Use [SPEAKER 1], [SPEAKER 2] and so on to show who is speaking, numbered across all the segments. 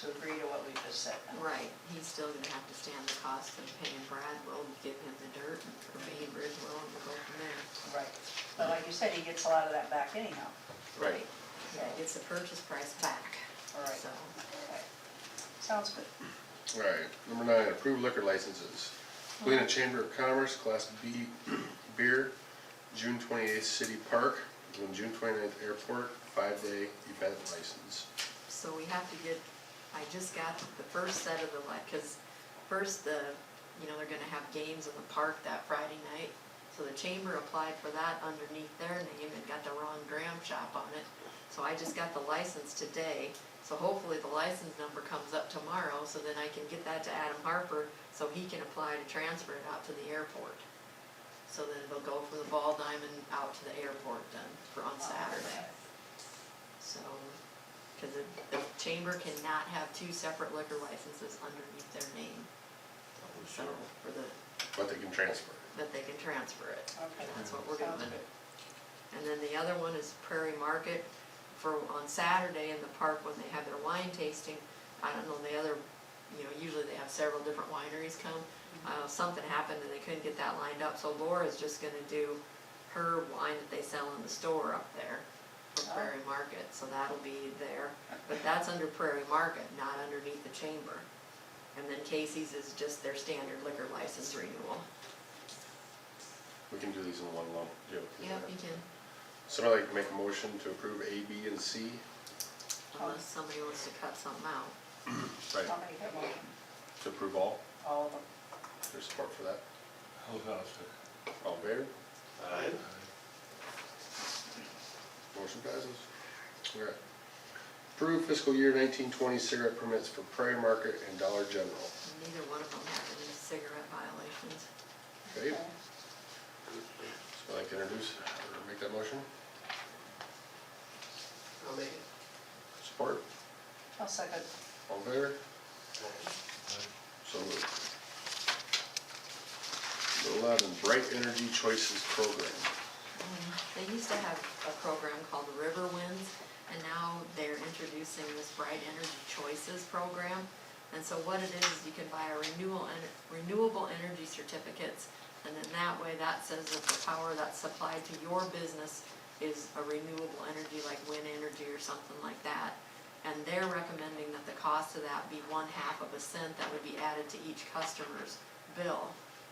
[SPEAKER 1] to agree to what we just said.
[SPEAKER 2] Right, he's still gonna have to stand the cost of paying Bradwell and give him the dirt, or maybe Bridwell, and we'll go from there.
[SPEAKER 1] Right. But like you said, he gets a lot of that back anyhow.
[SPEAKER 3] Right.
[SPEAKER 2] Yeah, gets the purchase price back,
[SPEAKER 1] All right.
[SPEAKER 2] so.
[SPEAKER 1] Okay. Sounds good.
[SPEAKER 3] All right, number nine, approved liquor licenses. Helena Chamber of Commerce, Class B beer, June twenty-eighth, City Park, and June 29th Airport, five-day event license.
[SPEAKER 2] So we have to get, I just got the first set of the, like, cause first the, you know, they're gonna have games in the park that Friday night. So the chamber applied for that underneath their name and got the Ron Graham shop on it. So I just got the license today, so hopefully the license number comes up tomorrow, so then I can get that to Adam Harper, so he can apply to transfer it out to the airport. So then it'll go from the Ball Diamond out to the airport then, for
[SPEAKER 1] Oh,
[SPEAKER 2] on Saturday. So, because the chamber cannot have two separate liquor licenses underneath their name, so, for the,
[SPEAKER 3] But they can transfer.
[SPEAKER 2] that they can transfer it.
[SPEAKER 1] Okay.
[SPEAKER 2] That's what we're
[SPEAKER 1] Sounds
[SPEAKER 2] doing.
[SPEAKER 1] good.
[SPEAKER 2] And then the other one is Prairie Market for, on Saturday in the park when they have their wine tasting. I don't know, the other, you know, usually they have several different wineries come. Uh, something happened and they couldn't get that lined up, so Laura's just gonna do her wine that they sell in the store up there from
[SPEAKER 1] Oh.
[SPEAKER 2] Prairie Market, so that'll be there. But that's under Prairie Market, not underneath the chamber. And then Casey's is just their standard liquor license renewal.
[SPEAKER 3] We can do these in one lump. Joe, can you
[SPEAKER 2] Yep,
[SPEAKER 3] do
[SPEAKER 2] you
[SPEAKER 3] that?
[SPEAKER 2] can,
[SPEAKER 3] Somebody like to make a motion to approve A, B, and C?
[SPEAKER 2] unless somebody wants to cut something out.
[SPEAKER 3] Right.
[SPEAKER 1] I'll make that motion.
[SPEAKER 3] To approve all?
[SPEAKER 1] All of them.
[SPEAKER 3] There's support for that?
[SPEAKER 4] Hold on a second.
[SPEAKER 3] All in favor?
[SPEAKER 5] Aye.
[SPEAKER 3] Motion passes. All right. Approve fiscal year nineteen twenty cigarette permits for Prairie Market and Dollar General.
[SPEAKER 2] Neither one of them have any cigarette violations.
[SPEAKER 3] Okay,
[SPEAKER 1] Okay.
[SPEAKER 3] so I'd like to introduce, or make that motion.
[SPEAKER 5] I'll make it.
[SPEAKER 3] Support,
[SPEAKER 1] I'll second.
[SPEAKER 3] all in favor?
[SPEAKER 5] Aye.
[SPEAKER 3] So moved. Number Eleven, Bright Energy Choices Program.
[SPEAKER 2] Um, They used to have a program called the River Winds, and now they're introducing this Bright Energy Choices program. And so what it is, is you can buy a renewal, ener- renewable energy certificates, and then that way, that says that the power that's supplied to your business is a renewable energy, like wind energy or something like that. And they're recommending that the cost of that be one half of a cent that would be added to each customer's bill.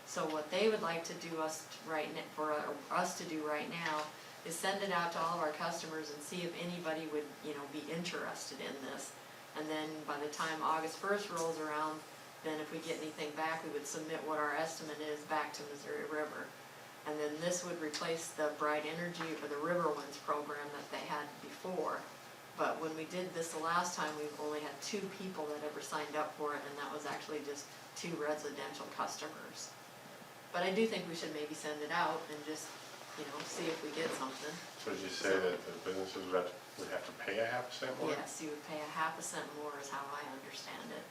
[SPEAKER 2] So what they would like to do us to right, n- for uh, us to do right now is send it out to all of our customers and see if anybody would, you know, be interested in this. And then by the time August first rolls around, then if we get anything back, we would submit what our estimate is back to Missouri River. And then this would replace the Bright Energy or the River Winds program that they had before. But when we did this the last time, we've only had two people that ever signed up for it, and that was actually just two residential customers. But I do think we should maybe send it out and just, you know, see if we get something.
[SPEAKER 6] So did you say that the businesses would have, to- would have to pay a half cent more?
[SPEAKER 2] Yes, you would pay a half a cent more is how I understand it.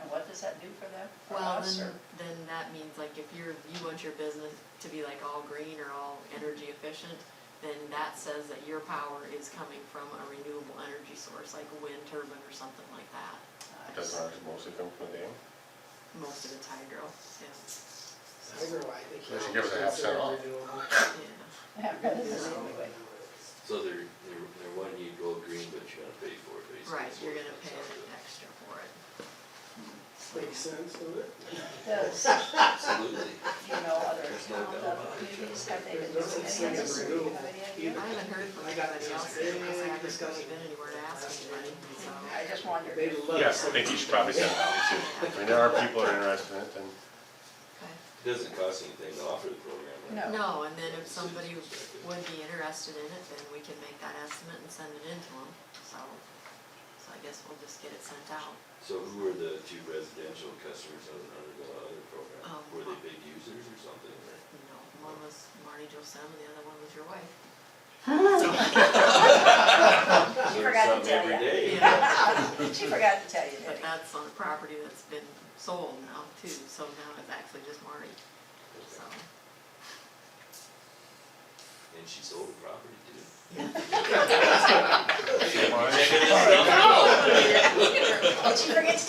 [SPEAKER 1] And what does that do for them? For
[SPEAKER 2] Well,
[SPEAKER 1] us,
[SPEAKER 2] then,
[SPEAKER 1] or-
[SPEAKER 2] then that means like if you're, you want your business to be like all green or all energy efficient, then that says that your power is coming from a renewable energy source, like a wind turbine or something like that.
[SPEAKER 3] Doesn't ours
[SPEAKER 6] Mostly come from the dam?
[SPEAKER 2] Most of it's hydro, yeah,
[SPEAKER 5] Tiger, I think.
[SPEAKER 3] They should give us a half cent off.
[SPEAKER 2] yeah.
[SPEAKER 1] Yeah, this is anyway.
[SPEAKER 7] So they're, they're, they're wanting you to go green, but you gotta pay for it, basically.
[SPEAKER 2] Right,
[SPEAKER 7] is
[SPEAKER 2] you're
[SPEAKER 7] what
[SPEAKER 2] gonna
[SPEAKER 7] it
[SPEAKER 2] pay
[SPEAKER 7] sounds
[SPEAKER 2] an
[SPEAKER 7] like.
[SPEAKER 2] extra for it.
[SPEAKER 5] Makes sense, doesn't it?
[SPEAKER 1] Does,
[SPEAKER 7] Absolutely.
[SPEAKER 1] you know, other
[SPEAKER 7] There's no
[SPEAKER 1] towns,
[SPEAKER 7] doubt
[SPEAKER 1] other
[SPEAKER 7] about it.
[SPEAKER 1] communities, have they been
[SPEAKER 5] There's no
[SPEAKER 1] doing
[SPEAKER 5] sense
[SPEAKER 1] any of
[SPEAKER 5] of
[SPEAKER 1] this? Do you have any idea?
[SPEAKER 5] renewable
[SPEAKER 2] I haven't heard from
[SPEAKER 5] I got
[SPEAKER 2] anybody
[SPEAKER 5] this
[SPEAKER 2] else, yet, because I haven't really
[SPEAKER 5] big discussion
[SPEAKER 2] been anywhere to ask
[SPEAKER 5] last
[SPEAKER 2] anybody,
[SPEAKER 5] night.
[SPEAKER 2] so.
[SPEAKER 1] I just wondered.
[SPEAKER 5] They love.
[SPEAKER 6] Yes, I think you should probably send it out, too. I mean, there are people that are interested in it, and
[SPEAKER 2] Okay.
[SPEAKER 7] It Doesn't cost anything to offer the program, right?
[SPEAKER 1] No.
[SPEAKER 2] No, and then if somebody would be interested in it, then we can make that estimate and send it in to them, so. So I guess we'll just get it sent out.
[SPEAKER 7] So who are the two residential customers that would undergo the other program?
[SPEAKER 2] Um,
[SPEAKER 7] Were they big users or something, or?
[SPEAKER 2] You know, one was Marty Josem and the other one was your wife.
[SPEAKER 1] She
[SPEAKER 7] Learn
[SPEAKER 1] forgot to
[SPEAKER 7] something
[SPEAKER 1] tell
[SPEAKER 7] every
[SPEAKER 1] you.
[SPEAKER 7] day.
[SPEAKER 1] She forgot to tell you,
[SPEAKER 2] But
[SPEAKER 1] didn't she?
[SPEAKER 2] that's on a property that's been sold now too, so now it's actually just Marty, so.
[SPEAKER 7] And she sold the property too.
[SPEAKER 8] Yeah.
[SPEAKER 9] Why?
[SPEAKER 2] um,
[SPEAKER 3] Did she forget to